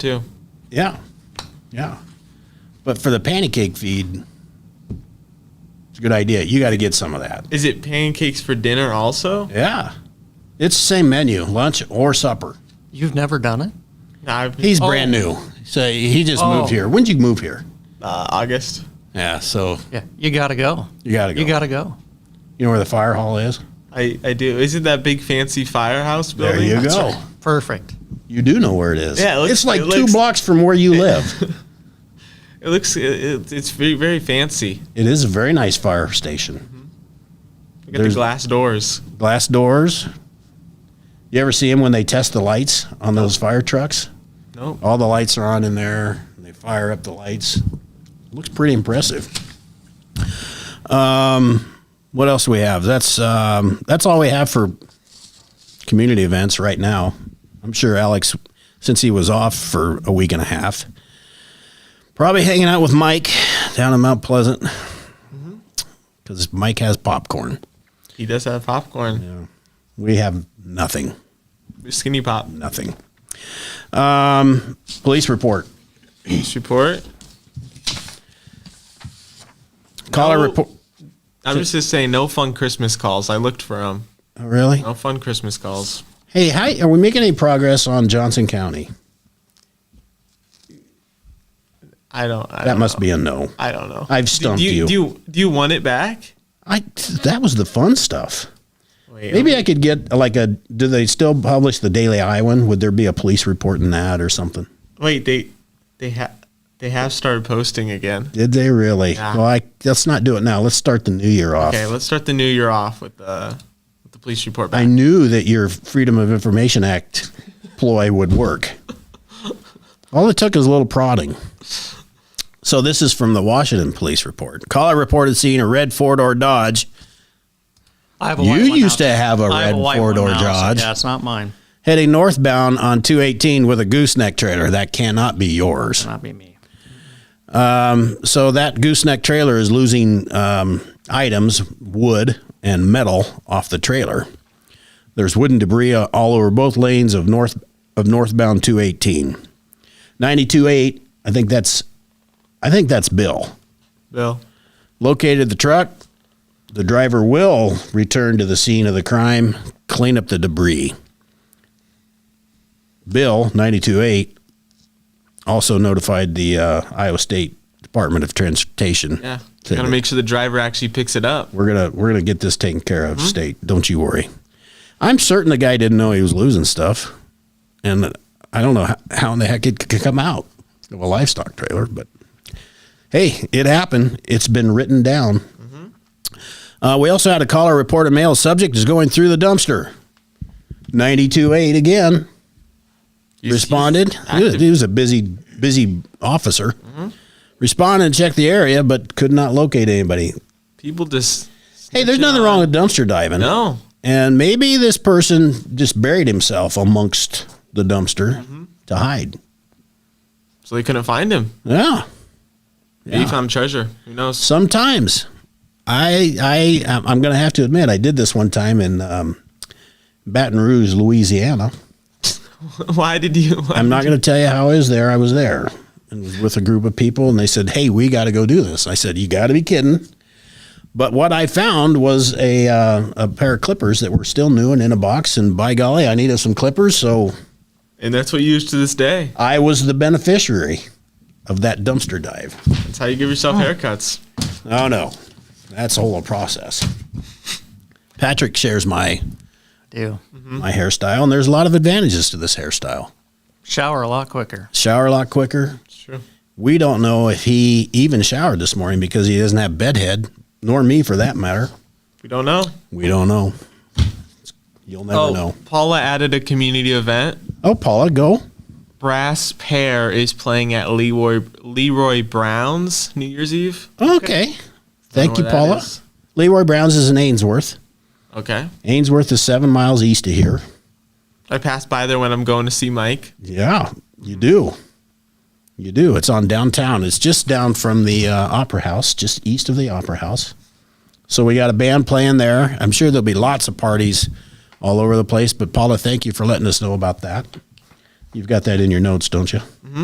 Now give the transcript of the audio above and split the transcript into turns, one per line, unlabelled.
too.
Yeah, yeah. But for the pancake feed, it's a good idea. You got to get some of that.
Is it pancakes for dinner also?
Yeah, it's the same menu, lunch or supper.
You've never done it?
No, I've-
He's
Oh,
brand new, so he just
Oh.
moved here. When'd you move here?
Uh, August.
Yeah, so
Yeah. You got to go.
you got to go.
You got to go.
You know where the fire hall is?
I, I do. Isn't that big fancy firehouse
There
building?
you go.
Perfect.
You do know where it is.
Yeah, it looks-
it's like
it
two
looks-
blocks from where you live.
It looks it, it, it's very very fancy.
it is a very nice fire
Mm-hmm.
station.
Look at the
There's-
glass doors.
Glass doors. You ever see them when they test the lights on those fire trucks?
Nope.
All the lights are on in there. and They fire up the lights. Looks pretty impressive. Um, what else do we have? That's um, that's all we have for community events right now. I'm sure Alex, since he was off for a week and a half, probably hanging out with Mike down in Mount Pleasant because Mike has popcorn.
He does have popcorn.
We have nothing.
Skinny pop.
Nothing. Um, police report.
Police report.
Caller
No.
report.
I'm just just saying, no fun Christmas calls. I looked for them.
Oh, really?
No fun Christmas calls.
Hey, hi. Are we making any progress on Johnson County?
I don't. I
That
don't
must
know.
be a no.
I don't know.
I've stumped
do, do
you.
Do you do you want it back?
I that was the fun stuff.
Wait,
Maybe I could get like a. Do they still publish the Daily Iowan? Would there be a police report in that or something?
Wait, they they have they have started posting again.
Did they really?
Yeah.
Well, I, let's not do it now. Let's start the new year off.
Okay, let's start the new year off with the with the police report
I
back.
knew that your Freedom of Information Act ploy would work. All it took is a little prodding. So this is from the Washington Police Report. Caller reported seeing a red four-door Dodge
I have
You
white one
used
now.
to have a
I
red
white
four-door
one now, so
Dodge.
yeah, it's not mine.
heading northbound on 218 with a gooseneck trailer. That cannot be yours.
Not be me.
So that gooseneck trailer is losing um, items, wood and metal off the trailer. There's wooden debris uh, all over both lanes of north of northbound 218. 928, I think that's I think that's Bill.
Bill,
Located the truck. The driver will return to the scene of the crime, clean up the debris. Bill, 92.8, also notified the uh, Iowa State Department of Transportation.
yeah,
Said,
gotta make sure the driver actually picks it up.
We're gonna we're gonna get this taken care of, state. Don't you worry. I'm certain the guy didn't know he was losing stuff, and I don't know how, how in the heck it could come out of a livestock trailer. But hey, it happened. It's been written down. Uh, we also had a caller report a male subject is going through the dumpster. 92.8 again
You-
responded.
you-
He was, he was a busy, busy officer. Responded and checked the area, but could not locate anybody.
People just
Hey, there's
snitching
nothing
on-
wrong with dumpster diving.
No,
And maybe this person just buried himself amongst the dumpster to hide.
so they couldn't find him.
Yeah.
He found treasure. Who knows?
Sometimes I I I'm- I'm going to have to admit I did this one time in um, Baton Rouge, Louisiana.
Why did you? Why
I'm not going to tell you how I was there. I was there and was with a group of people, and they said, "Hey, we got to go do this." I said, "You got to be kidding!" But what I found was a uh, a pair of clippers that were still new and in a box. And by golly, I needed some clippers, so
And that's what you use to this day.
I was the beneficiary of that dumpster dive.
That's how you give yourself haircuts.
Oh no, that's a whole process. Patrick shares my
Do
Hmm?
my hairstyle, and there's a lot of advantages to this hairstyle.
shower a lot quicker.
Shower a lot quicker,
It's true.
We don't know if he even showered this morning because he doesn't have bedhead, nor me for that matter.
We don't know.
We don't know. You'll never
Oh.
know.
Paula added a community event.
Oh, Paula, go.
Brass Pair is playing at Leroy Leroy Brown's New Year's Eve.
Okay. Thank
Don't know where
you,
that
Paula.
is.
Leroy Brown's is in Ainsworth.
Okay.
Ainsworth is seven miles east of here.
I pass by there when I'm going to see Mike.
Yeah, you do. You do. It's on downtown. It's just down from the uh, Opera House, just east of the Opera House. So we got a band playing there. I'm sure there'll be lots of parties all over the place. But Paula, thank you for letting us know about that. You've got that in your notes, don't you?